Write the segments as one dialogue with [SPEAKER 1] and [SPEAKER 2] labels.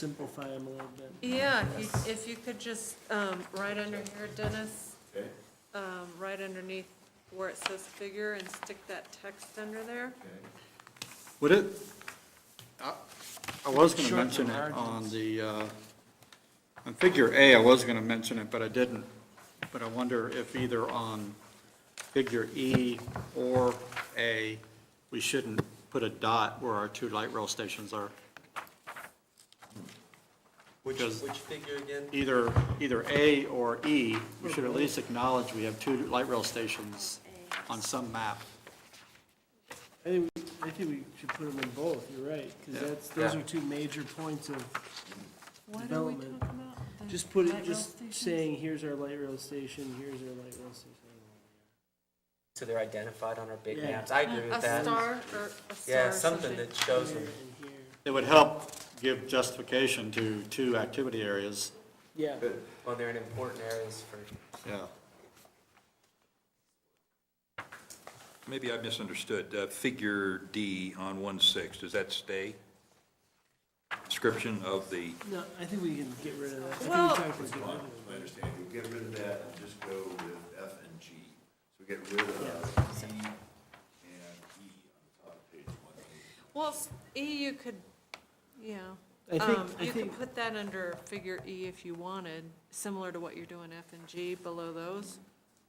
[SPEAKER 1] simplify them a little bit.
[SPEAKER 2] Yeah, if you- if you could just, um, right under here, Dennis,
[SPEAKER 3] Okay,
[SPEAKER 2] um, right underneath where it says figure and stick that text under there.
[SPEAKER 3] okay.
[SPEAKER 4] Would it, I- I was going to
[SPEAKER 1] Short and
[SPEAKER 4] mention it
[SPEAKER 1] hard.
[SPEAKER 4] on the, uh, on figure A, I was going to mention it, but I didn't. But I wonder if either on figure E or A, we shouldn't put a dot where our two light rail stations are.
[SPEAKER 5] Which,
[SPEAKER 4] Because-
[SPEAKER 5] which figure again?
[SPEAKER 4] Either, either A or E, we should at least acknowledge we have two light rail stations on some map.
[SPEAKER 1] I think, we- I think we should put them in both, you're right, because
[SPEAKER 4] Yeah.
[SPEAKER 1] that's, those
[SPEAKER 5] Yeah.
[SPEAKER 1] are two major points of,
[SPEAKER 2] What are we
[SPEAKER 1] Development.
[SPEAKER 2] talking about? The
[SPEAKER 1] just put
[SPEAKER 2] light
[SPEAKER 1] it,
[SPEAKER 2] rail
[SPEAKER 1] just
[SPEAKER 2] stations?
[SPEAKER 1] saying, here's our light rail station, here's our light rail station.
[SPEAKER 5] So they're identified on our big
[SPEAKER 1] Yeah.
[SPEAKER 5] maps. I agree with
[SPEAKER 2] A
[SPEAKER 5] that.
[SPEAKER 2] star or a star
[SPEAKER 5] Yeah,
[SPEAKER 2] or
[SPEAKER 5] something
[SPEAKER 2] something.
[SPEAKER 5] that shows them.
[SPEAKER 1] Here and here.
[SPEAKER 4] It would help give justification to two activity areas.
[SPEAKER 1] Yeah.
[SPEAKER 5] Well, they're in important areas for,
[SPEAKER 4] Yeah.
[SPEAKER 3] Maybe I misunderstood. Uh, Figure D on one six, does that stay? Description of the,
[SPEAKER 1] No, I think we can get rid of that. I think we
[SPEAKER 2] Well-
[SPEAKER 1] talked about getting rid of
[SPEAKER 6] I understand, we get rid of that and just go with F and G. So we get rid of C and E on the top of page one.
[SPEAKER 2] Well, s- E, you could, yeah.
[SPEAKER 1] I think-
[SPEAKER 2] Um,
[SPEAKER 1] I
[SPEAKER 2] You could
[SPEAKER 1] think-
[SPEAKER 2] put that under figure E if you wanted, similar to what you're doing F and G below those.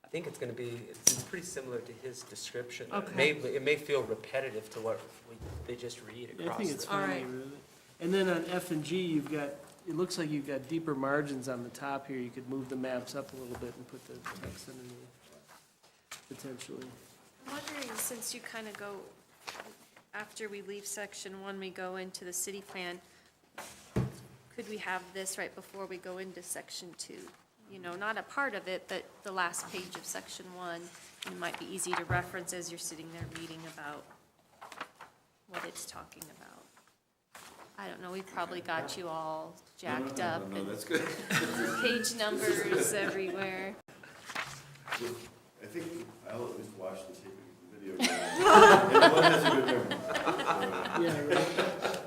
[SPEAKER 5] I think it's gonna be, it's, it's pretty similar to his description.
[SPEAKER 2] Okay.
[SPEAKER 5] It may, it may feel repetitive to what we, they just read
[SPEAKER 1] Yeah, I
[SPEAKER 5] across.
[SPEAKER 1] think it's
[SPEAKER 5] the-
[SPEAKER 2] All
[SPEAKER 1] fine to
[SPEAKER 2] right.
[SPEAKER 1] get rid of it. And then on F and G, you've got, it looks like you've got deeper margins on the top here. You could move the maps up a little bit and put the text underneath, potentially.
[SPEAKER 7] I'm wondering, since you kind of go, after we leave section one, we go into the city plan, could we have this right before we go into section two? You know, not a part of it, but the last page of section one, it might be easy to reference as you're sitting there reading about what it's talking about. I don't know, we've probably got you all jacked up
[SPEAKER 6] No,
[SPEAKER 7] and
[SPEAKER 6] that's good.
[SPEAKER 7] page numbers everywhere.
[SPEAKER 6] I think I'll at least watch the tape of the video. And one has a good memory.
[SPEAKER 1] Yeah, right.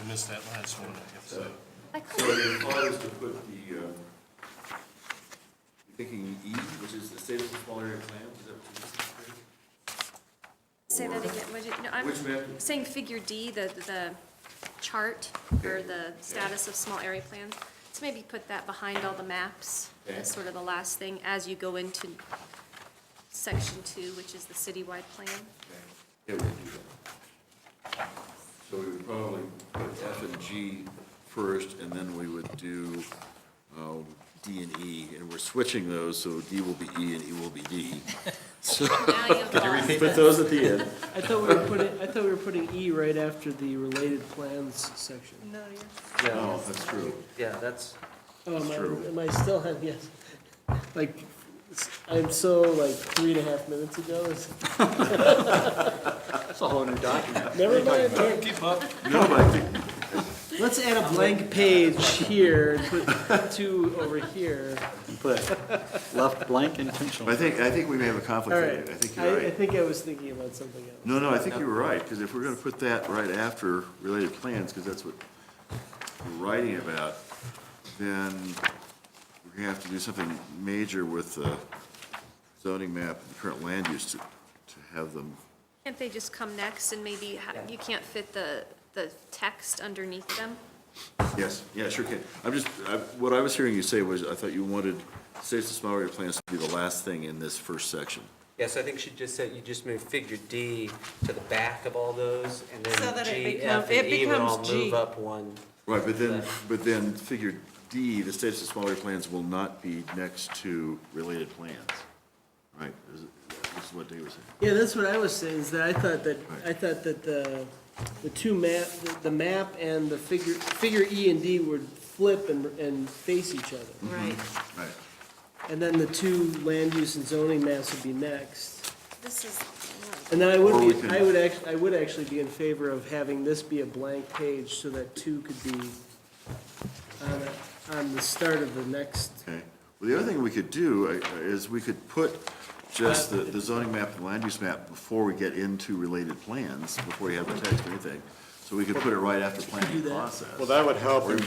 [SPEAKER 8] I missed that last one, I have to say.
[SPEAKER 7] I
[SPEAKER 6] So
[SPEAKER 7] couldn't-
[SPEAKER 6] your thought is to put the, um, you're thinking E, which is the state of the small area plan, is that what you're
[SPEAKER 7] Say that again, would you, no, I'm.
[SPEAKER 6] Which map?
[SPEAKER 7] saying figure D, the, the chart or the status of small area plans, let's maybe put that behind all the maps.
[SPEAKER 6] Okay.
[SPEAKER 7] That's sort of the last thing as you go into section two, which is the citywide plan.
[SPEAKER 6] Yeah, we can do that. So we would probably put F and G first, and then we would do um, D and E, and we're switching those, so D will be E and E will be D. So,
[SPEAKER 7] Now you've lost
[SPEAKER 6] put those at the end.
[SPEAKER 1] I thought we were putting, I thought we were putting E right after the related plans section.
[SPEAKER 2] No, you're.
[SPEAKER 6] No, that's true.
[SPEAKER 5] Yeah, that's,
[SPEAKER 1] Oh, am
[SPEAKER 6] True.
[SPEAKER 1] I, am I still on, yes? Like, s- I'm so like three and a half minutes ago. It's-
[SPEAKER 4] That's a whole new document.
[SPEAKER 1] Never mind. Keep up. Let's add a blank page here and put two over here.
[SPEAKER 4] Left blank intentionally.
[SPEAKER 6] I think, I think we may have a conflict
[SPEAKER 1] All
[SPEAKER 6] there.
[SPEAKER 1] right.
[SPEAKER 6] I think you're
[SPEAKER 1] I, I
[SPEAKER 6] right.
[SPEAKER 1] think I was thinking about something else.
[SPEAKER 6] No, no, I think you were right, because if we're going to put that right after related plans, because that's what we're writing about, then we're going to have to do something major with the zoning map and current land use to, to have them.
[SPEAKER 7] Can't they just come next and maybe ha-
[SPEAKER 5] Yeah.
[SPEAKER 7] you can't fit the, the text underneath them?
[SPEAKER 6] Yes, yeah, sure can. I'm just, I- what I was hearing you say was, I thought you wanted states and small area plans to be the last thing in this first section.
[SPEAKER 5] yeah, so I think she just said, you just move figure D to the back of all those and
[SPEAKER 2] So
[SPEAKER 5] then
[SPEAKER 2] that it
[SPEAKER 5] G,
[SPEAKER 2] become-
[SPEAKER 5] F,
[SPEAKER 2] it
[SPEAKER 5] and E would all
[SPEAKER 2] becomes G.
[SPEAKER 5] move up one.
[SPEAKER 6] Right, but then, but then figure D, the states and smaller plans will not be next to related plans. Right, this is- this is what Dave was saying.
[SPEAKER 1] Yeah, that's what I was saying, is that I thought that,
[SPEAKER 6] Right.
[SPEAKER 1] I thought that the, the two map, the- the map and the figure, figure E and D would flip and, and face each other.
[SPEAKER 2] Right.
[SPEAKER 6] Right.
[SPEAKER 1] And then the two land use and zoning maps would be next.
[SPEAKER 7] This is,
[SPEAKER 1] And then I
[SPEAKER 6] Or we
[SPEAKER 1] would be,
[SPEAKER 6] can-
[SPEAKER 1] I would actually, I would actually be in favor of having this be a blank page so that two could be on, a- on the start of the next,
[SPEAKER 6] Okay. Well, the other thing we could do uh, is we could put just the the zoning map and land use map before we get into related plans, before you have the text or anything.
[SPEAKER 4] So we could put it right after planning
[SPEAKER 9] that.
[SPEAKER 4] process.
[SPEAKER 6] Well, that would help
[SPEAKER 4] Or
[SPEAKER 6] in